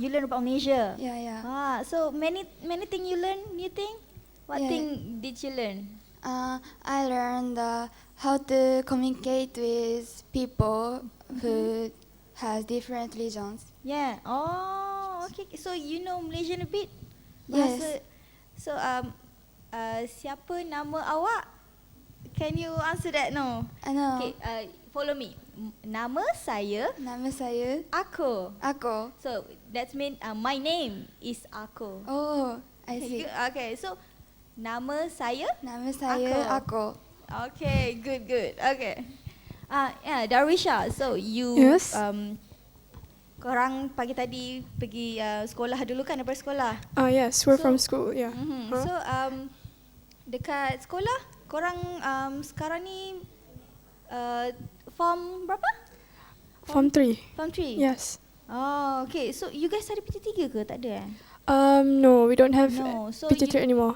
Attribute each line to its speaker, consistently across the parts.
Speaker 1: You learn about Malaysia.
Speaker 2: Yeah, yeah.
Speaker 1: Ah, so many many thing you learn. You think? What
Speaker 2: Yeah.
Speaker 1: thing did you learn?
Speaker 2: Uh, I learned uh, how to communicate with people who
Speaker 1: Mm-hmm.
Speaker 2: has different religions.
Speaker 1: Yeah. Oh, okay. So you know Malaysian a bit?
Speaker 2: Yes.
Speaker 1: Bahasa- So um, uh, siapa nama awak? Can you answer that? No.
Speaker 2: I know.
Speaker 1: Okay. Uh, follow me. M- Nama saya
Speaker 2: Nama saya
Speaker 1: Ako.
Speaker 2: Ako.
Speaker 1: So that means uh, my name is Ako.
Speaker 2: Oh, I
Speaker 1: Okay,
Speaker 2: see.
Speaker 1: good. Okay. So nama saya.
Speaker 2: Nama saya Ako.
Speaker 1: Okay. Good. Good. Okay. Ah, yeah, Darwisha. So you
Speaker 3: Yes.
Speaker 1: um, korang pagi tadi pergi uh, sekolah dulu kan daripada sekolah.
Speaker 3: Uh, yes, we're from
Speaker 1: So-
Speaker 3: school, yeah.
Speaker 1: Mm-hmm.
Speaker 3: Huh?
Speaker 1: So um, dekat sekolah, korang um, sekarang ni uh, form berapa?
Speaker 3: Form 3.
Speaker 1: Form 3?
Speaker 3: Yes.
Speaker 1: Oh, okay. So you guys ada PT3 ke? Tak ada eh?
Speaker 3: Um, no, we don't have
Speaker 1: No, so
Speaker 3: PTT
Speaker 1: you-
Speaker 3: anymore.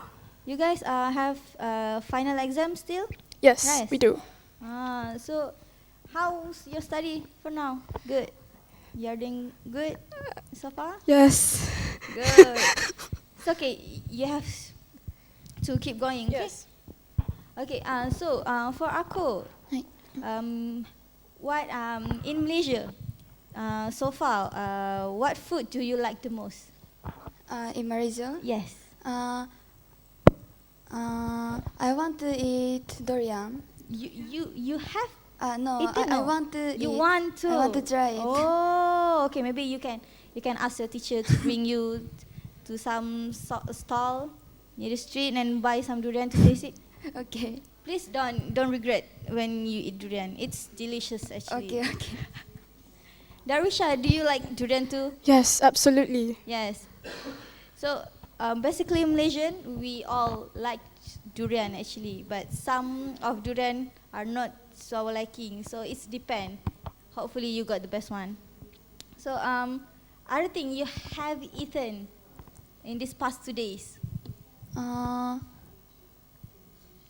Speaker 1: You guys uh, have uh, final exam still?
Speaker 3: Yes,
Speaker 1: Nice.
Speaker 3: we do.
Speaker 1: Ah, so how's your study for now? Good. You're doing good so far?
Speaker 3: Yes.
Speaker 1: Good. it's okay. You have to keep going. Okay?
Speaker 3: Yes.
Speaker 1: Okay, uh, so uh, for Ako,
Speaker 2: Hi.
Speaker 1: um, what um, in Malaysia, uh, so far, uh, what food do you like the most?
Speaker 2: Uh, in Malaysia,
Speaker 1: Yes.
Speaker 2: uh, uh, I want to eat durian.
Speaker 1: You you you have
Speaker 2: Uh, no, I,
Speaker 1: eaten
Speaker 2: I
Speaker 1: no?
Speaker 2: want to
Speaker 1: You
Speaker 2: eat.
Speaker 1: want to?
Speaker 2: Eh, I want to try it.
Speaker 1: Oh, okay. Maybe you can you can ask your teacher to bring you to some so- stall near the street and buy some durian to taste it.
Speaker 2: Okay.
Speaker 1: Please don't don't regret when you eat durian. It's delicious actually.
Speaker 2: Okay, okay.
Speaker 1: Darisha, do you like durian too?
Speaker 3: Yes, absolutely.
Speaker 1: Yes. So um, basically, Malaysian, we all like durian actually, but some of durian are not so our liking. So it's depend. Hopefully, you got the best one. So um, other thing you have eaten in these past two days,
Speaker 2: Uh,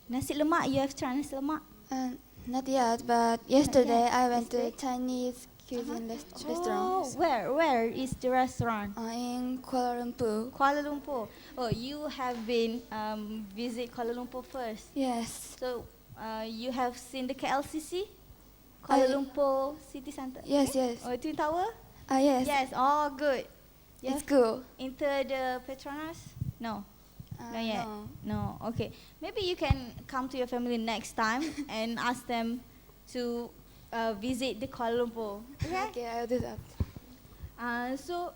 Speaker 1: nasi lemak. You have tried nasi lemak.
Speaker 2: uh, not yet, but yesterday I went to
Speaker 1: Yesterday?
Speaker 2: Chinese cuisine rest-
Speaker 1: Oh,
Speaker 2: restaurant
Speaker 1: where where is the restaurant?
Speaker 2: uh, in Kuala Lumpur.
Speaker 1: Kuala Lumpur. Oh, you have been um, visit Kuala Lumpur first.
Speaker 2: Yes.
Speaker 1: So uh, you have seen the KLCC, Kuala
Speaker 2: I-
Speaker 1: Lumpur City Centre.
Speaker 2: Yes, yes.
Speaker 1: Oh, Twin Tower.
Speaker 2: Ah, yes.
Speaker 1: Yes. Oh, good. You
Speaker 2: It's
Speaker 1: have
Speaker 2: good.
Speaker 1: enter the Petronas? No,
Speaker 2: Uh,
Speaker 1: not yet.
Speaker 2: no.
Speaker 1: No. Okay. Maybe you can come to your family next time and ask them to uh, visit the Kuala Lumpur. Okay.
Speaker 2: Okay, I'll do that.
Speaker 1: Uh, so,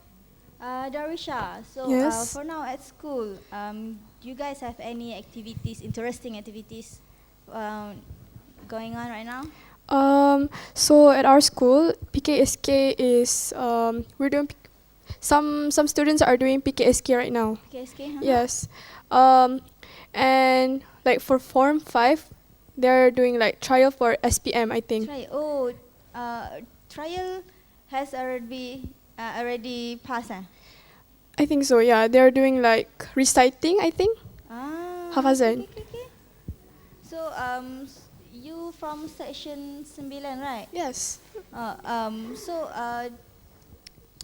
Speaker 1: uh, Darisha, so uh,
Speaker 3: Yes.
Speaker 1: for now at school, um, do you guys have any activities, interesting activities um, going on right now?
Speaker 3: Um, so at our school, PKSK is um, we're doing P- some some students are doing PKSK right now.
Speaker 1: KSK, huh?
Speaker 3: Yes. Um, and like for form 5, they're doing like trial for SPM, I think.
Speaker 1: Try. Oh, uh, trial has already uh, already passed. Eh?
Speaker 3: I think so. Yeah, they're doing like reciting, I think.
Speaker 1: Ah,
Speaker 3: Hafazan.
Speaker 1: okay, okay, okay. So, um, s- you from section 9, right?
Speaker 3: Yes.
Speaker 1: Uh, um, so, uh,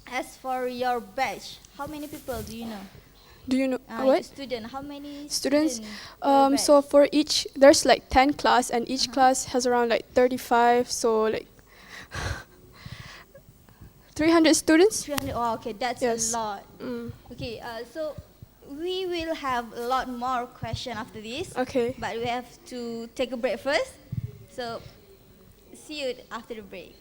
Speaker 1: as for your batch, how many people do you know?
Speaker 3: Do you know
Speaker 1: Uh,
Speaker 3: what?
Speaker 1: Student, how many
Speaker 3: Students,
Speaker 1: student per
Speaker 3: Um,
Speaker 1: batch?
Speaker 3: so for each, there's like 10 class and each
Speaker 1: Uh-huh.
Speaker 3: class has around like 35, so like 300 students.
Speaker 1: 300. Oh, okay, that's
Speaker 3: Yes.
Speaker 1: a lot.
Speaker 3: Mm.
Speaker 1: Okay, uh, so we will have a lot more question after this,
Speaker 3: Okay.
Speaker 1: but we have to take a break first. So, see you after the break.